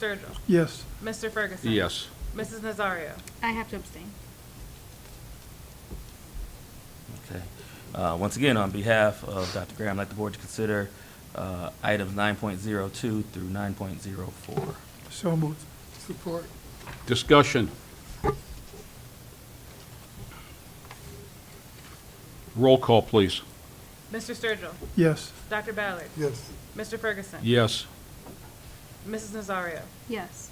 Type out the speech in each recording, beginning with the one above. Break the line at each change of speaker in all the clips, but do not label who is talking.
Sturgill.
Yes.
Mr. Ferguson.
Yes.
Mrs. Nazario.
I have to abstain.
Okay. Uh, Once again, on behalf of Dr. Graham, I'd like the board to consider uh, items 9.02 through 9.04.
So moved. Support.
Discussion. Roll call, please.
Mr. Sturgill.
Yes.
Dr. Ballard.
Yes.
Mr. Ferguson.
Yes.
Mrs. Nazario.
Yes.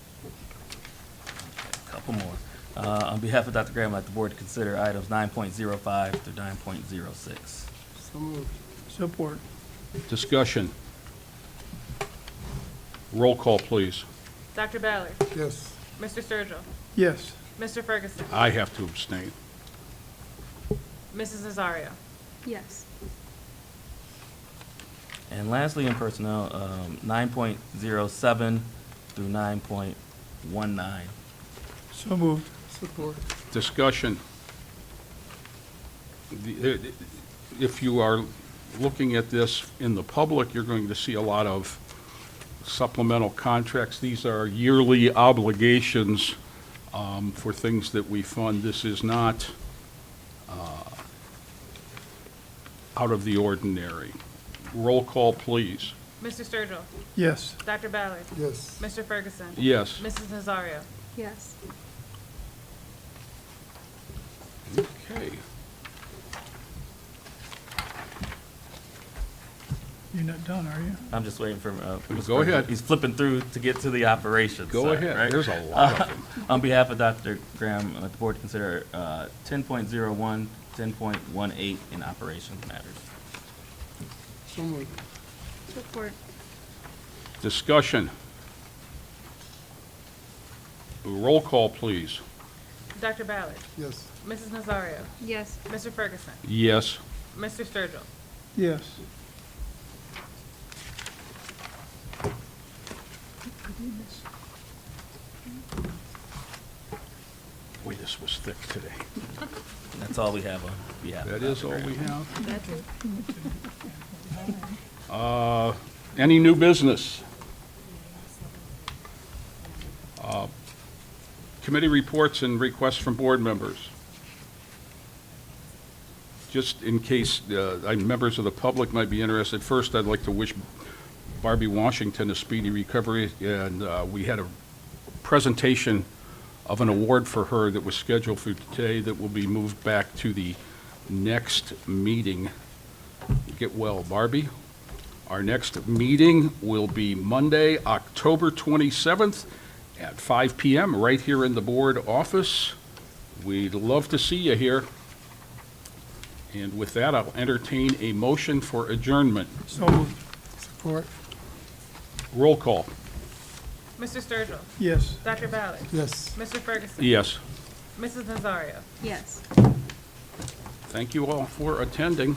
A Couple more. Uh, On behalf of Dr. Graham, I'd like the board to consider items 9.05 through 9.06.
So moved. Support.
Discussion. Roll call, please.
Dr. Ballard.
Yes.
Mr. Sturgill.
Yes.
Mr. Ferguson.
I have to abstain.
Mrs. Nazario.
Yes.
And lastly, in personnel, um, 9.07 through 9.19.
So moved. Support.
Discussion. The- uh, If you are looking at this in the public, you're going to see a lot of supplemental contracts. These are yearly obligations um, for things that we fund. This is not uh, out of the ordinary. Roll call, please.
Mr. Sturgill.
Yes.
Dr. Ballard.
Yes.
Mr. Ferguson.
Yes.
Mrs. Nazario.
Yes.
Okay.
You're not done, are you?
I'm just waiting for, uh, Mr.
Go ahead.
He's flipping through to get to the operations.
Go
side,
ahead.
right? Uh,
There's a lot of them.
On behalf of Dr. Graham, I'd like the board to consider uh, 10.01, 10.18 in operations matters.
So moved.
Support.
Discussion. Roll call, please.
Dr. Ballard.
Yes.
Mrs. Nazario.
Yes.
Mr. Ferguson.
Yes.
Mr. Sturgill.
Yes.
Boy, this was thick today.
That's all we have on behalf of
That is
Dr.
all we
Graham.
have.
That's it.
Uh, Any new business? Uh, Committee reports and requests from board members. Just in case uh, I- members of the public might be interested, first, I'd like to wish Barbie Washington a speedy recovery, and uh, we had a presentation of an award for her that was scheduled for today that will be moved back to the next meeting. Get well, Barbie. Our next meeting will be Monday, October 27th at 5 PM, right here in the board office. We'd love to see you here. And with that, I'll entertain a motion for adjournment.
So moved. Support.
Roll call.
Mr. Sturgill.
Yes.
Dr. Ballard.
Yes.
Mr. Ferguson.
Yes.
Mrs. Nazario.
Yes.
Thank you all for attending.